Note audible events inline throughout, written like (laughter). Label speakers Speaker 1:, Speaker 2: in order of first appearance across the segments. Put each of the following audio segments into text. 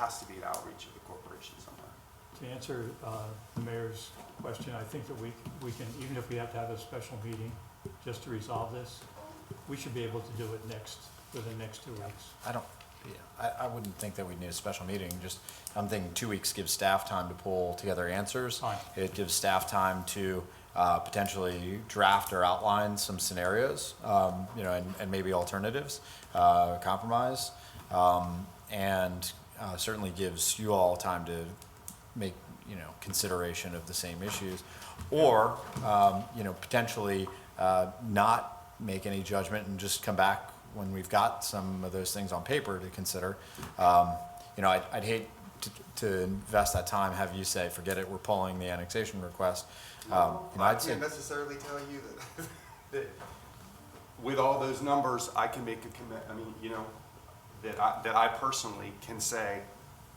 Speaker 1: has to be an outreach of the corporation somewhere.
Speaker 2: To answer uh, the mayor's question, I think that we, we can, even if we have to have a special meeting just to resolve this, we should be able to do it next, within the next two weeks.
Speaker 3: I don't, yeah, I, I wouldn't think that we'd need a special meeting, just, I'm thinking two weeks gives staff time to pull together answers.
Speaker 2: Fine.
Speaker 3: It gives staff time to, uh, potentially draft or outline some scenarios, um, you know, and, and maybe alternatives, uh, compromise. Um, and, uh, certainly gives you all time to make, you know, consideration of the same issues. Or, um, you know, potentially, uh, not make any judgment and just come back when we've got some of those things on paper to consider. Um, you know, I'd, I'd hate to, to invest that time, have you say, forget it, we're pulling the annexation request. Um, you know,
Speaker 1: I
Speaker 3: I'd say,
Speaker 1: can't necessarily tell you that, (laughs) that with all those numbers, I can make a commit, I mean, you know, that I, that I personally can say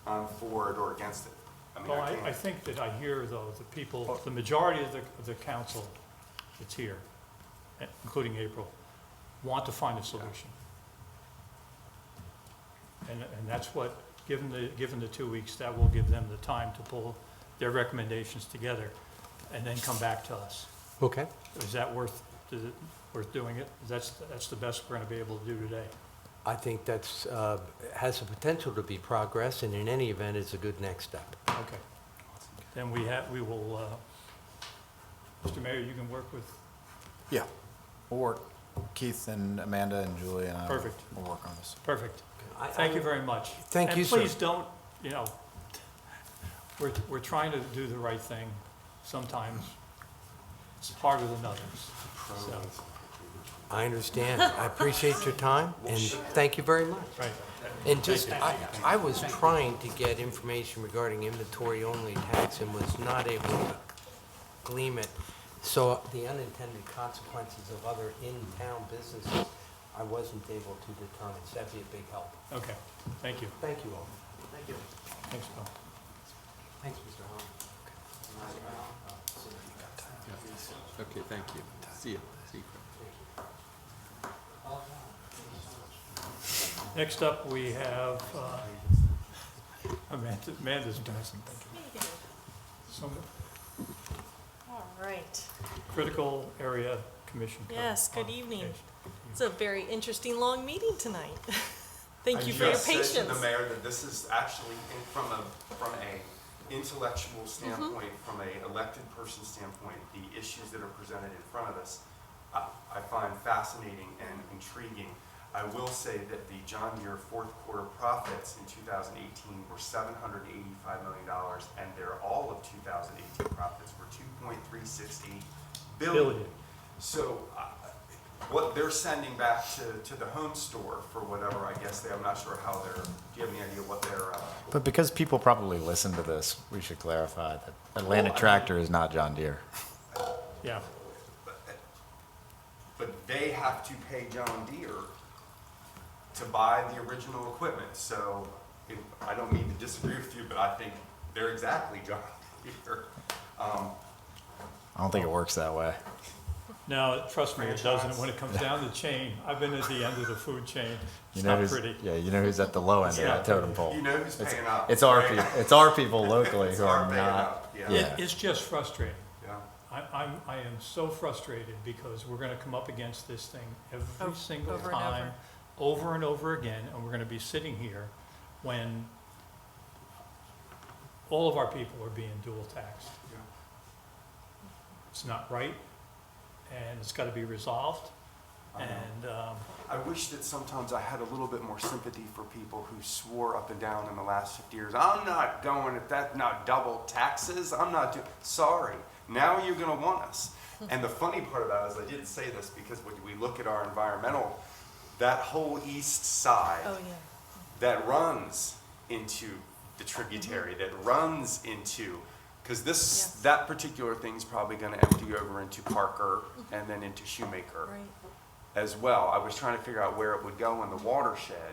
Speaker 1: I'm for it or against it. I mean,
Speaker 2: Well,
Speaker 1: I
Speaker 2: I, I
Speaker 1: can't.
Speaker 2: think that I hear though, the people, the majority of the, of the council that's here, eh, including April, want to find a solution. And, and that's what, given the, given the two weeks, that will give them the time to pull their recommendations together and then come back to us.
Speaker 4: Okay,
Speaker 2: Is that worth, is it worth doing it? That's, that's the best we're gonna be able to do today.
Speaker 4: I think that's, uh, has the potential to be progress, and in any event, it's a good next step.
Speaker 2: Okay. Then we have, we will, uh, Mr. Mayor, you can work with,
Speaker 3: yeah, we'll work, Keith and Amanda and Julie and I. will-
Speaker 2: Perfect.
Speaker 3: We'll work on this.
Speaker 2: perfect.
Speaker 4: I-
Speaker 2: Thank
Speaker 4: I-
Speaker 2: you very much.
Speaker 4: Thank you, sir.
Speaker 2: And please don't, you know, we're, we're trying to do the right thing. Sometimes it's harder than others. So,
Speaker 4: I understand. I appreciate your time, and thank you very much.
Speaker 2: Right.
Speaker 4: And just, I, I was trying to get information regarding inventory-only tax and was not able to glean it. So the unintended consequences of other in-town businesses, I wasn't able to determine. So that'd be a big help.
Speaker 2: Okay, thank you.
Speaker 4: Thank you all. Thank you.
Speaker 2: Thanks, Bill.
Speaker 4: Thanks, Mr. Holland.
Speaker 5: Okay, thank you. See you. See you.
Speaker 2: Next up, we have uh, Amanda, Amanda's doing something. Some
Speaker 6: All right.
Speaker 2: critical area commission. code
Speaker 6: Yes, good evening.
Speaker 2: modification.
Speaker 6: It's a very interesting, long meeting tonight. (laughs)
Speaker 1: I
Speaker 6: Thank you for your
Speaker 1: just said to
Speaker 6: patience.
Speaker 1: The mayor that this is actually in- from a, from a intellectual
Speaker 6: Mm-hmm.
Speaker 1: standpoint, from a elected person standpoint, the issues that are presented in front of us, I, I find fascinating and intriguing. I will say that the John Muir fourth quarter profits in 2018 were $785 million, and their all of 2018 profits were 2.368
Speaker 2: Billion.
Speaker 1: billion. So uh, what they're sending back to, to the home store for whatever, I guess, they, I'm not sure how they're, do you have any idea what they're, uh,
Speaker 3: But because people probably listen to this, we should clarify that Atlantic
Speaker 1: Well, Oh, I-
Speaker 3: Tractor is not John Deere.
Speaker 2: Yeah,
Speaker 1: but they have to pay John Deere to buy the original equipment, so it- I don't mean to disagree with you, but I think they're exactly John Deere. Um,
Speaker 3: I don't think it works that way.
Speaker 2: no, trust me, it doesn't.
Speaker 1: Franchise.
Speaker 2: When it comes down the chain, I've been at the end of the food chain.
Speaker 3: You
Speaker 2: It's
Speaker 3: know
Speaker 2: not
Speaker 3: who's,
Speaker 2: pretty.
Speaker 3: Yeah, you know who's at the low end of
Speaker 1: Yeah.
Speaker 3: that totem pole.
Speaker 1: You know who's
Speaker 3: Oh, It's-
Speaker 1: paying up,
Speaker 3: It's our
Speaker 1: right?
Speaker 3: people. It's our people
Speaker 1: (laughs)
Speaker 3: locally
Speaker 1: It's
Speaker 3: who
Speaker 1: our
Speaker 3: are
Speaker 1: paying
Speaker 3: not.
Speaker 1: up, yeah.
Speaker 2: It, it's just frustrating.
Speaker 1: Yeah.
Speaker 2: I, I'm, I am so frustrated because we're gonna come up against this thing every
Speaker 6: Over-
Speaker 2: single
Speaker 6: over and
Speaker 2: time, over and over again, and we're gonna be sitting here when all of our people are being dual taxed.
Speaker 1: Yeah.
Speaker 2: It's not right, and it's gotta be resolved,
Speaker 1: I know.
Speaker 2: and, um,
Speaker 1: I wish that sometimes I had a little bit more sympathy for people who swore up and down in the last 50 years, I'm not going, if that's not double taxes, I'm not doing, sorry, now you're gonna want
Speaker 6: (laughs)
Speaker 1: us. And the funny part about it is, I didn't say this because when we look at our environmental, that whole east
Speaker 6: Oh,
Speaker 1: side
Speaker 6: yeah.
Speaker 1: that runs into the tributary,
Speaker 6: Mm-hmm.
Speaker 1: that runs into, because this,
Speaker 6: Yes.
Speaker 1: that particular thing's probably gonna empty over into Parker and then into Shoemaker
Speaker 6: Mm-hmm. Right.
Speaker 1: as well. I was trying to figure out where it would go in the watershed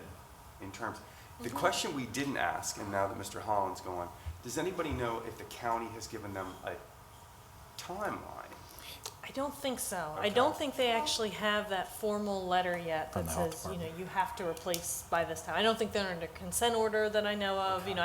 Speaker 1: in terms. The question we didn't ask, and now that Mr. Holland's gone, does anybody know if the county has given them a timeline?
Speaker 6: I don't think so. I
Speaker 1: Okay.
Speaker 6: don't think they actually have that formal letter yet
Speaker 3: From
Speaker 6: that
Speaker 3: the health
Speaker 6: says, you know, you have to replace by this time. I don't think they're under consent order that I know of, you know,